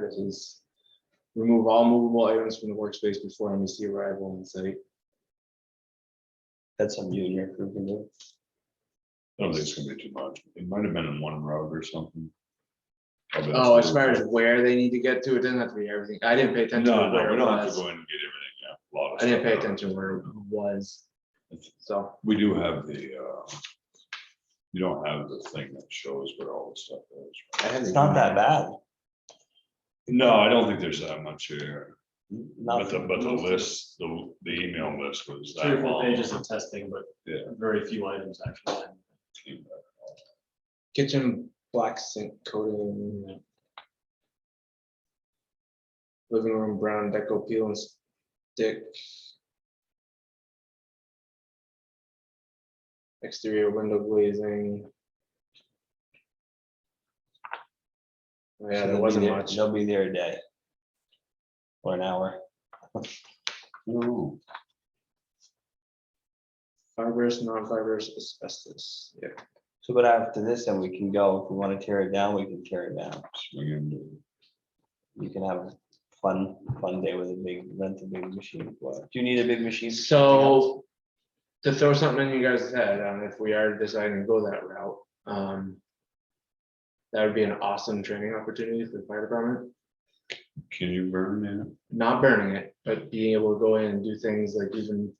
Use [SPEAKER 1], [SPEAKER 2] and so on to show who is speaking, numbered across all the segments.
[SPEAKER 1] such as remove all movable items from the workspace before MSC arrival on site.
[SPEAKER 2] That's something you and your crew can do.
[SPEAKER 3] I don't think it's gonna be too much. It might have been in one road or something. I'll be honest
[SPEAKER 1] Oh,
[SPEAKER 3] with
[SPEAKER 1] as
[SPEAKER 3] you.
[SPEAKER 1] far as where they need to get to, it doesn't have to be everything. I didn't pay attention
[SPEAKER 3] No,
[SPEAKER 1] to
[SPEAKER 3] no,
[SPEAKER 1] where
[SPEAKER 3] we
[SPEAKER 1] it
[SPEAKER 3] don't have to
[SPEAKER 1] was.
[SPEAKER 3] go in and get everything, yeah. a lot of
[SPEAKER 1] I didn't
[SPEAKER 3] stuff.
[SPEAKER 1] pay attention where it was. So,
[SPEAKER 3] We do have the, uh, you don't have the thing that shows where all the stuff is.
[SPEAKER 1] I
[SPEAKER 3] right?
[SPEAKER 1] have
[SPEAKER 2] It's not that bad.
[SPEAKER 3] No, I don't think there's that much here,
[SPEAKER 2] Not
[SPEAKER 3] but the, but the list, the, the email list was
[SPEAKER 4] Three or
[SPEAKER 3] that
[SPEAKER 4] four
[SPEAKER 3] long.
[SPEAKER 4] pages of testing, but
[SPEAKER 3] Yeah.
[SPEAKER 4] very few items actually.
[SPEAKER 1] kitchen black sink coating. Living room brown deco peel and stick. Exterior window glazing. Oh, Yeah, there wasn't much.
[SPEAKER 2] They'll be there a day. Or an hour.
[SPEAKER 3] Ooh,
[SPEAKER 1] Fibrous, non-fibrous, asbestos, yeah.
[SPEAKER 2] So but after this, then we can go, if we want to tear it down, we can tear it down.
[SPEAKER 3] swing into-
[SPEAKER 2] You can have a fun, fun day with a big, rent a big machine. for it. Do you need a big machine? for something else?
[SPEAKER 1] So, to throw something in you guys' head, um, if we are deciding to go that route, um. That would be an awesome training opportunity for the fire department,
[SPEAKER 3] Can you burn in?
[SPEAKER 1] not burning it, but being able to go in and do things like even.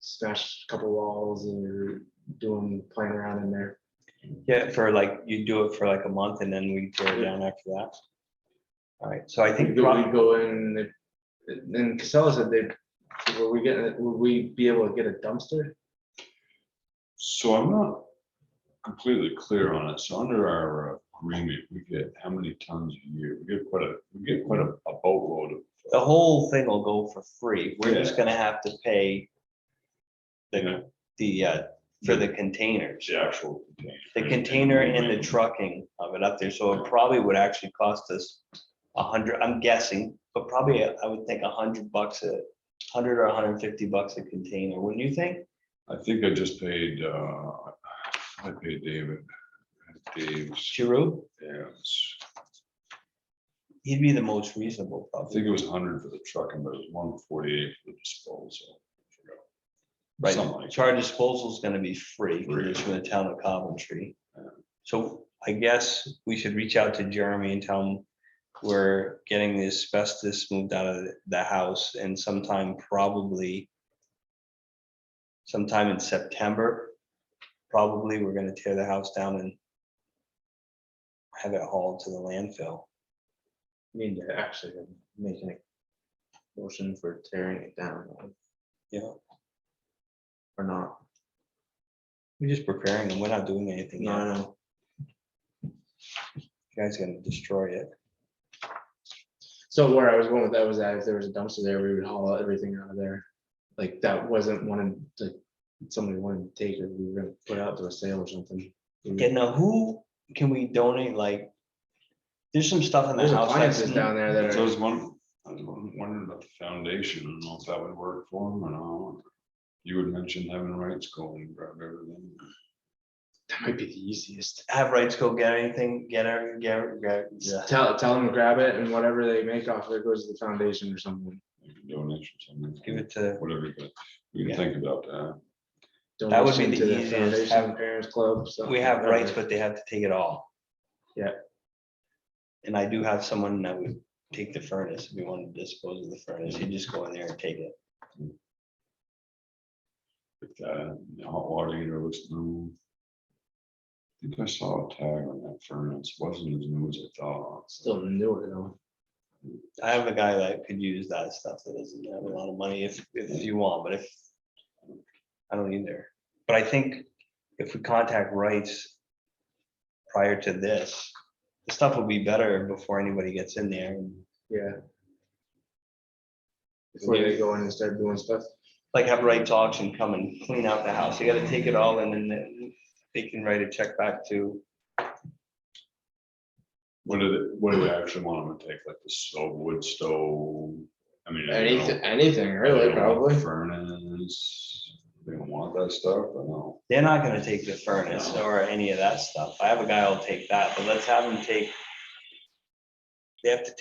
[SPEAKER 1] Smash a couple walls and doing, playing around in there,
[SPEAKER 2] Yeah, for like, you do it for like a month and then we tear it down after that. All right, so I
[SPEAKER 1] we
[SPEAKER 2] think,
[SPEAKER 1] go
[SPEAKER 2] prob-
[SPEAKER 1] we go in, they- and Casella said they, were we getting, it- would we be able to get a dumpster?
[SPEAKER 3] So I'm not completely clear on it. So under our agreement, we get how many tons a year? We get quite a, we get quite a a boatload of.
[SPEAKER 2] the whole thing will go for free. We're just gonna have to pay
[SPEAKER 3] Yeah,
[SPEAKER 2] the, uh, for the containers.
[SPEAKER 3] The actual. container.
[SPEAKER 2] The container and the trucking of it up there, so it probably would actually cost us a hundred, I'm guessing, but probably uh, I would think a hundred bucks a, hundred or a hundred and fifty bucks a container, wouldn't you think?
[SPEAKER 3] I think I just paid, uh, I paid David. Dave's,
[SPEAKER 2] Giroux,
[SPEAKER 3] yeah, it's-
[SPEAKER 2] he'd be the most reasonable
[SPEAKER 3] I
[SPEAKER 2] probably,
[SPEAKER 3] think it was hundred for the trucking, but it was one forty-eight for the disposal. I forgot. Something
[SPEAKER 2] right?
[SPEAKER 3] like
[SPEAKER 2] Charge disposal is gonna be free, 'cause
[SPEAKER 3] Free.
[SPEAKER 2] it's from the town of Coventry.
[SPEAKER 3] Yeah.
[SPEAKER 2] So I guess we should reach out to Jeremy and tell him we're getting the asbestos moved out of the house and sometime probably sometime in September, probably we're gonna tear the house down and have it hauled to the landfill.
[SPEAKER 1] Need to actually make a motion for tearing it down
[SPEAKER 2] Yeah,
[SPEAKER 1] or not.
[SPEAKER 2] we're just preparing and we're not doing anything.
[SPEAKER 1] No,
[SPEAKER 2] yet.
[SPEAKER 1] I know.
[SPEAKER 2] You Guys gonna destroy it.
[SPEAKER 1] So where I was going with that was that if there was a dumpster there, we would haul everything out of there. Like that wasn't one of the, somebody wanted to take it, we were gonna put it out to a sale or something.
[SPEAKER 2] Yeah, now who can we donate, like, there's some stuff in the
[SPEAKER 1] There's
[SPEAKER 2] house. that's-
[SPEAKER 1] appliances down there that
[SPEAKER 3] So I was
[SPEAKER 1] are,
[SPEAKER 3] wondering, I was won- wondering about the foundation, I don't know if that would work for them or not. You would mention having rights go and grab everything.
[SPEAKER 1] that might be the easiest.
[SPEAKER 2] Have rights go get anything, get her, get, her- get, yeah.
[SPEAKER 1] Tell, tell them to grab it and whatever they make off of it goes to the foundation or something.
[SPEAKER 3] like a Donation, something.
[SPEAKER 2] give it to,
[SPEAKER 3] Whatever, but we
[SPEAKER 2] Yeah.
[SPEAKER 3] can think about that.
[SPEAKER 2] That would be
[SPEAKER 1] Donation
[SPEAKER 2] the
[SPEAKER 1] to
[SPEAKER 2] easiest,
[SPEAKER 1] foundation,
[SPEAKER 2] have-
[SPEAKER 1] Parents club. something,
[SPEAKER 2] we have rights,
[SPEAKER 1] whatever.
[SPEAKER 2] but they have to take it all.
[SPEAKER 1] Yeah.
[SPEAKER 2] And I do have someone that would take the furnace, if we wanted to dispose of the furnace, you just go in there and take it.
[SPEAKER 3] If that, the hot water heater looks new. I think I saw a tag on that furnace, wasn't as new as I thought.
[SPEAKER 1] Still newer though.
[SPEAKER 2] I have a guy that could use that stuff that doesn't have a lot of money if, if you want, but if. I don't either, but I think if we contact rights. Prior to this, the stuff will be better before anybody gets in there. and,
[SPEAKER 1] Yeah. Before they go in and start doing stuff.
[SPEAKER 2] Like have rights auction come and clean out the house. You gotta take it all and then they can write a check back to,
[SPEAKER 3] What do they, what do they actually want them to take, like the stove, wood stove? I mean. I don't-
[SPEAKER 1] Anything, anything
[SPEAKER 3] I don't
[SPEAKER 1] really,
[SPEAKER 3] want
[SPEAKER 1] probably.
[SPEAKER 3] Furnace, they don't want that stuff, I know.
[SPEAKER 2] they're not gonna take the furnace or any of that stuff. I have a guy who'll take that, but let's have them take. They have to